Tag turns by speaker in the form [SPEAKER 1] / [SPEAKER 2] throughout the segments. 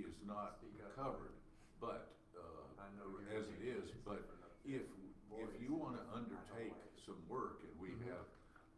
[SPEAKER 1] uh, some work and we
[SPEAKER 2] Mm-hmm.
[SPEAKER 1] have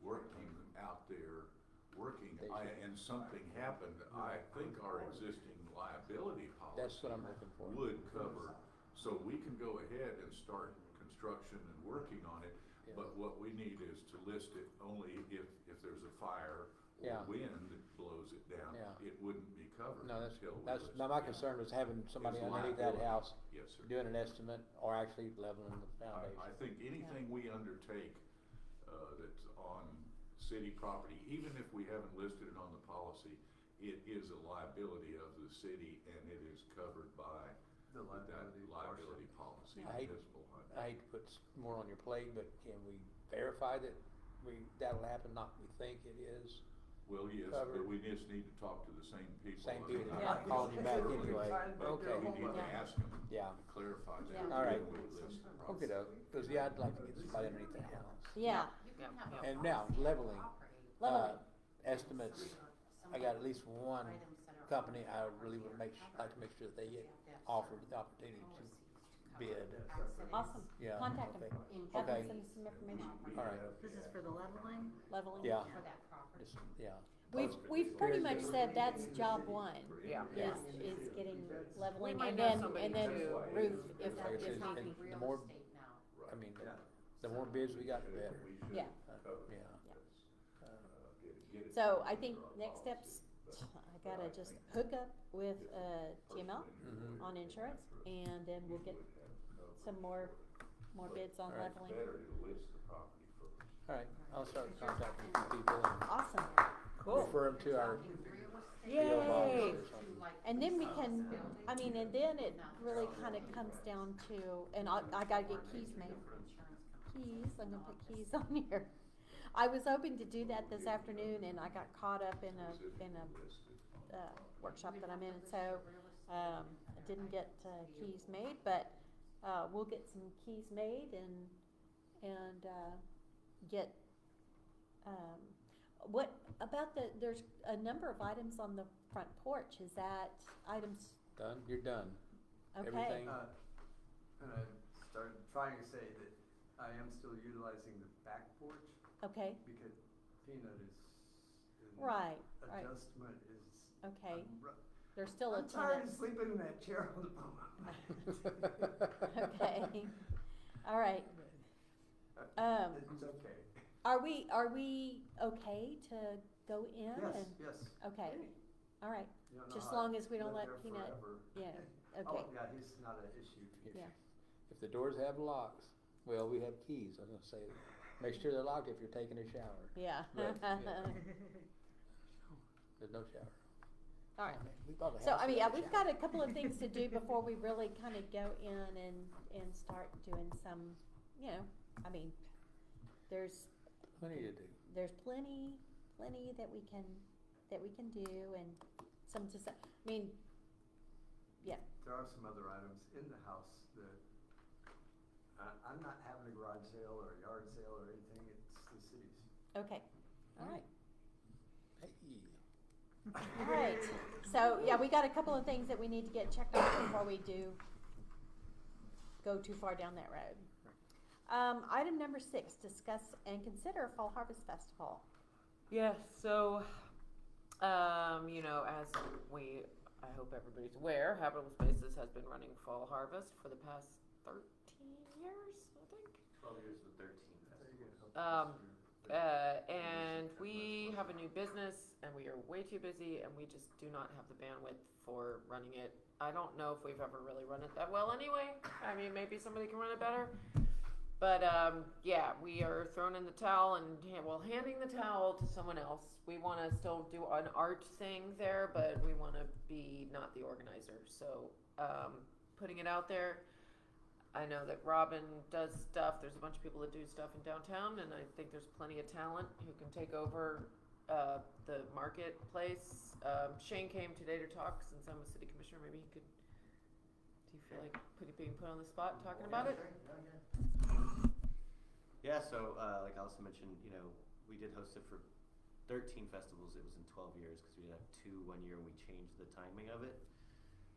[SPEAKER 1] work team out there working,
[SPEAKER 2] They
[SPEAKER 1] I-
[SPEAKER 2] should-
[SPEAKER 1] and something happened, I think our existing liability policy
[SPEAKER 2] That's what I'm looking for.
[SPEAKER 1] would cover, so we can go ahead and start construction and working on it, but what we need is to list it only if, if there's a fire or
[SPEAKER 2] Yeah.
[SPEAKER 1] wind that blows it down,
[SPEAKER 2] Yeah.
[SPEAKER 1] it wouldn't be covered
[SPEAKER 2] No, that's,
[SPEAKER 1] until we
[SPEAKER 2] that's,
[SPEAKER 1] list
[SPEAKER 2] now
[SPEAKER 1] it.
[SPEAKER 2] my concern was having somebody
[SPEAKER 1] It's
[SPEAKER 2] underneath that
[SPEAKER 1] liability.
[SPEAKER 2] house
[SPEAKER 1] Yes, sir.
[SPEAKER 2] doing an estimate or actually leveling the
[SPEAKER 1] I, I
[SPEAKER 2] foundation.
[SPEAKER 1] think anything we undertake, uh, that's on city property, even if we haven't listed it on the policy, it is a liability of the city and it is covered by
[SPEAKER 3] The liability
[SPEAKER 1] that liability policy.
[SPEAKER 2] I hate-
[SPEAKER 1] that's behind it.
[SPEAKER 2] I hate to put s- more on your plate, but can we verify that we, that'll happen, not we think it is?
[SPEAKER 1] Well, yes, but
[SPEAKER 2] covered.
[SPEAKER 1] we just need to talk to the same people.
[SPEAKER 2] Same people that
[SPEAKER 4] Yeah.
[SPEAKER 2] called you back
[SPEAKER 1] Earlier,
[SPEAKER 2] anyway.
[SPEAKER 1] But we
[SPEAKER 2] Okay,
[SPEAKER 1] need to ask them
[SPEAKER 2] Yeah.
[SPEAKER 1] to clarify that.
[SPEAKER 4] Yeah.
[SPEAKER 2] All right.
[SPEAKER 1] when we list it.
[SPEAKER 2] okay, though, cause yeah, I'd like to get somebody underneath that house.
[SPEAKER 4] Yeah,
[SPEAKER 2] And now, leveling.
[SPEAKER 4] Leveling.
[SPEAKER 2] Uh, Estimates, I got at least one company I really would make, su- like to make sure that they get offered the opportunity to bid.
[SPEAKER 4] awesome.
[SPEAKER 2] Yeah,
[SPEAKER 4] Contact
[SPEAKER 2] okay.
[SPEAKER 4] them. Have
[SPEAKER 2] Okay.
[SPEAKER 4] them send us some information.
[SPEAKER 2] All right,
[SPEAKER 5] This is for the leveling?
[SPEAKER 4] Leveling.
[SPEAKER 2] Yeah.
[SPEAKER 5] For that property.
[SPEAKER 2] just, yeah.
[SPEAKER 4] We've, we've pretty much said that's job one,
[SPEAKER 6] Yeah.
[SPEAKER 4] is, is getting leveling
[SPEAKER 6] might
[SPEAKER 4] and
[SPEAKER 6] know
[SPEAKER 4] then,
[SPEAKER 6] somebody
[SPEAKER 4] and then
[SPEAKER 6] too.
[SPEAKER 4] roof if,
[SPEAKER 2] Like I
[SPEAKER 4] if
[SPEAKER 2] said,
[SPEAKER 4] not.
[SPEAKER 5] Talking
[SPEAKER 2] and the
[SPEAKER 5] real
[SPEAKER 2] more-
[SPEAKER 5] estate now.
[SPEAKER 2] I mean,
[SPEAKER 3] Yeah.
[SPEAKER 2] the more bids we got, the better.
[SPEAKER 1] We should
[SPEAKER 4] Yeah.
[SPEAKER 1] cover
[SPEAKER 2] Yeah.
[SPEAKER 4] Yeah.
[SPEAKER 1] this. Uh, get it- get it
[SPEAKER 4] So
[SPEAKER 1] covered
[SPEAKER 4] I
[SPEAKER 1] under
[SPEAKER 4] think
[SPEAKER 1] our
[SPEAKER 4] next
[SPEAKER 1] policy.
[SPEAKER 4] steps, I gotta just hook up with, uh, TML
[SPEAKER 1] Mhm.
[SPEAKER 4] on insurance and then we'll get some more, more bids on
[SPEAKER 2] All right.
[SPEAKER 4] leveling.
[SPEAKER 1] Better to list the property first.
[SPEAKER 2] All right, I'll start contacting some people and
[SPEAKER 4] Awesome.
[SPEAKER 2] refer them to our,
[SPEAKER 5] Talking real estate
[SPEAKER 2] Deal
[SPEAKER 4] Yay.
[SPEAKER 2] box or something.
[SPEAKER 5] to like
[SPEAKER 4] And then we
[SPEAKER 5] consultants
[SPEAKER 4] can,
[SPEAKER 5] building.
[SPEAKER 4] I mean, and then it really kind of comes down to, and I, I gotta get keys made.
[SPEAKER 5] Insurance companies.
[SPEAKER 4] Keys, I'm gonna put keys on here. I was hoping to do that this afternoon and I got caught up in a, in a, uh, workshop that I'm in, and so, um, I didn't get, uh, keys made, but, uh, we'll get some keys made and, and, uh, get, um, what about the, there's a number of items on the front porch, is that items,
[SPEAKER 2] done, you're done.
[SPEAKER 4] okay?
[SPEAKER 2] Everything.
[SPEAKER 3] Uh, and I started trying to say that I am still utilizing the back porch
[SPEAKER 4] Okay,
[SPEAKER 3] because peanut is. an
[SPEAKER 4] Right, right.
[SPEAKER 3] Adjustment is.
[SPEAKER 4] Okay.
[SPEAKER 3] I'm ru-
[SPEAKER 4] there's still a
[SPEAKER 3] I'm tired of
[SPEAKER 4] tenant.
[SPEAKER 3] sleeping in that chair all the moment.
[SPEAKER 4] Okay, all right. Um,
[SPEAKER 3] Uh, It's okay.
[SPEAKER 4] Are we, are we okay to go in
[SPEAKER 3] Yes,
[SPEAKER 4] and,
[SPEAKER 3] yes.
[SPEAKER 4] okay, all right,
[SPEAKER 3] You don't know
[SPEAKER 4] just
[SPEAKER 3] how
[SPEAKER 4] long
[SPEAKER 3] I
[SPEAKER 4] as we don't
[SPEAKER 3] lived
[SPEAKER 4] let
[SPEAKER 3] there
[SPEAKER 4] Peanut-
[SPEAKER 3] forever.
[SPEAKER 4] yeah,
[SPEAKER 3] Oh,
[SPEAKER 4] okay,
[SPEAKER 3] yeah, he's not an issue.
[SPEAKER 2] If-
[SPEAKER 4] Yeah.
[SPEAKER 2] If the doors have locks, well, we have keys, I was gonna say, make sure they're locked if you're taking a shower.
[SPEAKER 4] yeah.
[SPEAKER 2] But, yeah,
[SPEAKER 4] uh,
[SPEAKER 2] There's no shower.
[SPEAKER 4] All right,
[SPEAKER 2] We bought a
[SPEAKER 4] so
[SPEAKER 2] house
[SPEAKER 4] I mean, yeah,
[SPEAKER 2] without
[SPEAKER 4] we've
[SPEAKER 2] shower.
[SPEAKER 4] got a couple of things to do before we really kind of go in and, and start doing some, you know, I mean, there's,
[SPEAKER 2] Plenty to do.
[SPEAKER 4] there's plenty, plenty that we can, that we can do and some to, s- I mean, yeah,
[SPEAKER 3] There are some other items in the house that, I, I'm not having a garage sale or a yard sale or anything, it's the city's.
[SPEAKER 4] okay, all right.
[SPEAKER 2] Hey.
[SPEAKER 4] All right, so, yeah, we got a couple of things that we need to get checked off before we do go too far down that road. Um, item number six, discuss and consider Fall Harvest Festival.
[SPEAKER 6] Yeah, so, um, you know, as we, I hope everybody's aware, Habitable Spaces has been running Fall Harvest for the past 13 years, I think.
[SPEAKER 7] Twelve years with thirteen.
[SPEAKER 3] There you go.
[SPEAKER 6] Um, Uh, and we have a new business and we are way too busy and we just do not have the bandwidth for running it. I don't know if we've ever really run it that well anyway. I mean, maybe somebody can run it better. But um, yeah, we are thrown in the towel and ha- well, handing the towel to someone else. We want to still do an art thing there, but we want to be not the organizer. So um, putting it out there, I know that Robin does stuff. There's a bunch of people that do stuff in downtown, and I think there's plenty of talent who can take over uh, the marketplace. Um, Shane came today to talk since I'm a city commissioner. Maybe he could. Do you feel like put, being put on the spot uh, talking about it?
[SPEAKER 7] Yeah, so uh, like Allison mentioned, you know, we did host it for thirteen festivals. It was in twelve years because we did have two one year and we changed the timing of it.